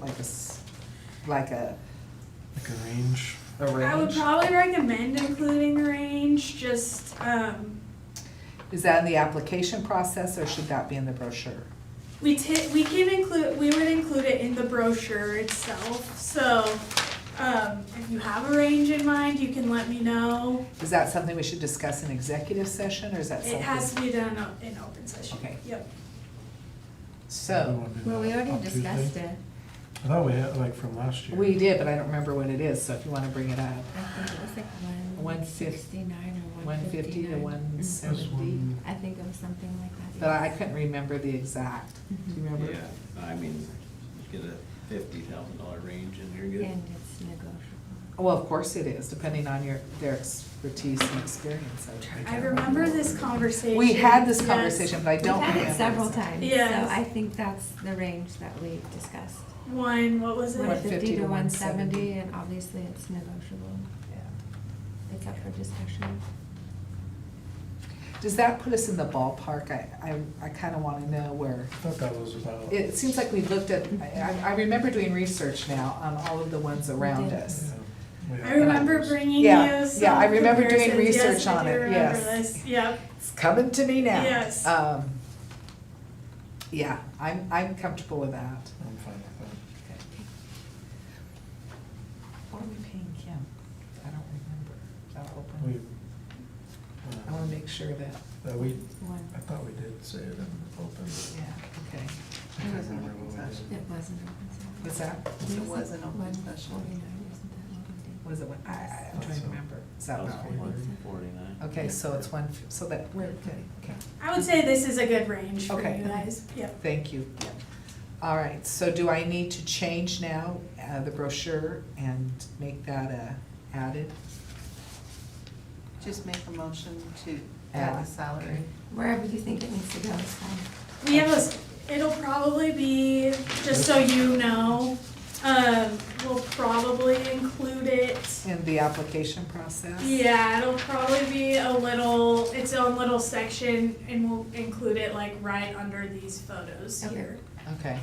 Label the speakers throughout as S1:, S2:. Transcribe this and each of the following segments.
S1: like a, s- like a,
S2: Like a range.
S1: a
S3: I would
S1: range?
S3: probably recommend including a range, just, um,
S1: Is that in the application process or should that be in the brochure?
S3: we ti- we can include, we would include it in the brochure itself, so, um, if you have a range in mind, you can let me know.
S1: Is that something we should discuss in executive session or is that something?
S3: It has to be done o- in open session.
S1: Okay.
S3: Yep.
S2: We
S1: So,
S2: wanna do
S4: Well, we
S2: that
S4: already
S2: on
S4: discussed
S2: Tuesday?
S4: it.
S2: I thought we had, like, from last year.
S1: we did, but I don't remember what it is, so if you wanna bring it up.
S4: I think it was like
S1: One
S4: one
S1: fif-
S4: sixty-nine or
S1: One
S4: one
S1: fifty to
S4: fifty-nine. Mm-hmm.
S1: one
S2: It was
S1: seventy,
S2: one-
S4: I think it was something like that.
S1: but I I
S4: yes.
S1: couldn't remember the exact, do you
S4: Mm-hmm.
S1: remember?
S5: Yeah, I mean, get a fifty thousand dollar range and you're good.
S4: And it's negotiable.
S1: Well, of course it is, depending on your, their expertise and experience. I think.
S3: I remember this conversation.
S1: We had this
S3: yes.
S1: conversation, but I don't
S4: We've
S1: remember.
S4: had it several
S1: exactly.
S4: times, so
S3: Yes.
S4: I think that's the range that we discussed.
S3: One, what was
S4: One
S3: it?
S1: What?
S4: fifty to one seventy, and obviously it's negotiable. It's up for discussion.
S1: Does that put us in the ballpark? I, I, I kinda wanna know where,
S2: I thought that was about.
S1: it seems like we've looked at, I, I remember doing research now on all of the ones around
S4: did.
S1: us.
S2: Yeah, we
S3: I
S2: had-
S3: remember bringing you
S1: Yeah,
S3: some comparisons.
S1: yeah, I remember doing research
S3: Yes, I
S1: on
S3: do
S1: it,
S3: remember
S1: yes.
S3: this. Yep.
S1: It's coming to me now.
S3: Yes.
S1: Um, yeah, I'm, I'm comfortable with that.
S2: I'm fine with that.
S1: What are we paying Kim? I don't remember. Is that
S2: We.
S1: open? I
S2: uh,
S1: wanna make sure that,
S2: That we,
S4: One,
S2: I thought we did say it in open.
S1: yeah, okay.
S2: I can't remember what we
S4: it
S2: did.
S4: wasn't open session.
S1: What's that?
S4: It
S6: was an open
S4: session. One forty-nine, wasn't that what we did?
S1: What is it? I, I, I'm trying to remember. Is that
S5: That was
S1: about
S4: forty.
S1: right?
S5: Forty-nine.
S1: Okay, so it's one, f- so that, we're good, okay.
S3: I would say this is a good range for
S1: Okay.
S3: you guys. Yep.
S1: Thank you. All right, so do I need to change now uh, the brochure and make that uh, added?
S6: Just make a motion to add the salary.
S4: Wherever you think it needs to go is fine.
S3: We have a, s- it'll probably be, just so you know, um, we'll probably include it.
S1: In the application process?
S3: Yeah, it'll probably be a little, its own little section and we'll include it like right under these photos
S4: Okay.
S3: here.
S1: Okay,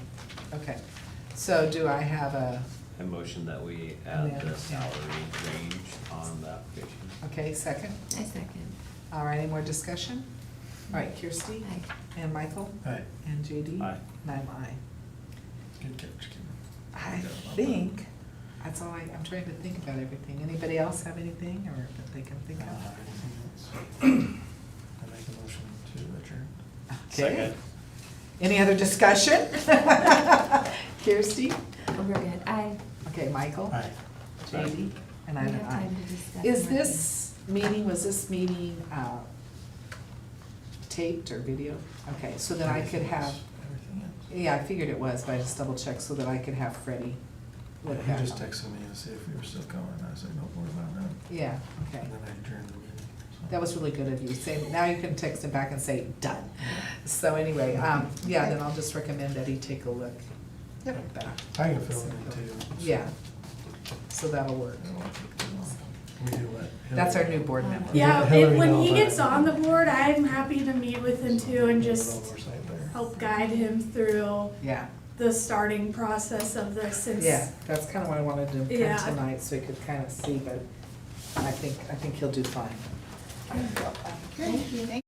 S1: okay. So do I have a,
S5: I motion that we add
S1: Yeah.
S5: the salary range on the application.
S1: okay, second?
S4: I second.
S1: All right, any more discussion? All right, Kirsty
S4: I
S1: and Michael
S2: Hey,
S1: and JD?
S5: Aye.
S1: And I'm aye.
S2: good catch, Kim.
S1: I
S5: Yeah, well done.
S1: think, that's all I, I'm trying to think about everything. Anybody else have anything or that they can think
S2: Uh,
S1: of?
S2: anything else? I make a motion to adjourn.
S1: Okay. Any other discussion? Kirsty?
S4: Oh, We're good. I,
S1: Okay, Michael?
S2: Aye.
S1: JD? And
S4: we
S1: I'm
S4: have
S1: an aye.
S4: time to discuss.
S1: Is
S4: more
S1: this meeting, was this meeting uh, taped or video? Okay, so that I could
S2: Everything
S1: have,
S2: else- Everything else.
S1: yeah, I figured it was, but I just double checked so that I could have Freddie
S2: Yeah,
S1: look
S2: He
S1: back
S2: just
S1: on it.
S2: texted me to see if we were still going, and I said, no, we're not now.
S1: Yeah, okay.
S2: And then I adjourned the meeting. so.
S1: That was really good of you. Say, now you can text him back and say, done. So anyway, um, yeah, then I'll just recommend that he take a look
S2: Yep.
S1: back.
S2: I can fill it in too. so
S1: Yeah. So that'll work.
S2: it won't take too long. We do let.
S1: That's our new
S2: Hillary-
S1: board member.
S3: Yeah,
S2: Hillary
S3: if, when
S2: knows
S3: he
S2: that.
S3: gets on the board, I'm happy to meet with him too
S2: Little
S3: and just
S2: oversight there.
S3: help guide him through
S1: Yeah,
S3: the starting process of this since.
S1: yeah, that's kind of what I wanted to
S3: Yeah.
S1: print tonight, so you could kind of see, but I think, I think he'll do fine.
S6: Thank you.